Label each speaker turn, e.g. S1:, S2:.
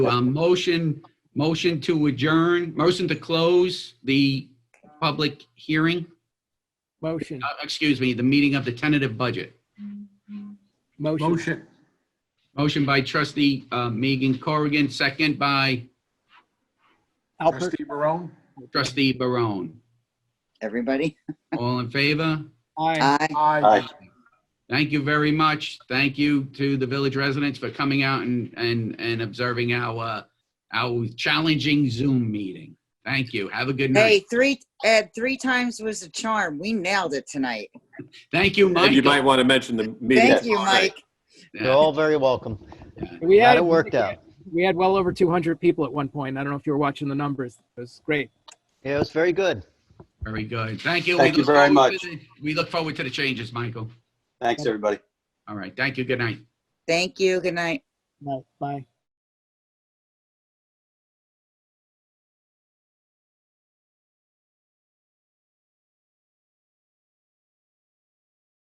S1: Um, motion, motion to adjourn, motion to close the public hearing,
S2: Motion,
S1: uh, excuse me, the meeting of the tentative budget.
S2: motion,
S3: Motion,
S1: Motion by trustee, uh, Megan Corrigan, second by
S2: Alpert,
S3: trustee Barone?
S1: trustee Barone.
S4: everybody.
S1: All in favor?
S2: aye.
S4: Aye.
S3: Aye.
S1: Thank you very much. Thank you to the village residents for coming out and, and, and observing our, uh, our challenging Zoom meeting. Thank you. Have a good night.
S4: Hey, three, Ed, three times was a charm. We nailed it tonight.
S1: Thank you,
S5: And you might
S1: Michael.
S5: want to mention the meeting.
S4: Thank you, Mike.
S6: You're all very welcome.
S2: We
S6: Glad
S2: had
S6: it worked out.
S2: We had well over 200 people at one point. I don't know if you were watching the numbers. It was great.
S6: Yeah, it was very good.
S1: Very good. Thank you.
S7: Thank
S1: We
S7: you
S1: look
S7: very
S1: forward
S7: much.
S1: to the- We look forward to the changes, Michael.
S7: Thanks, everybody.
S1: All right. Thank you. Good night.
S4: Thank you. Good night.
S2: Bye. Bye.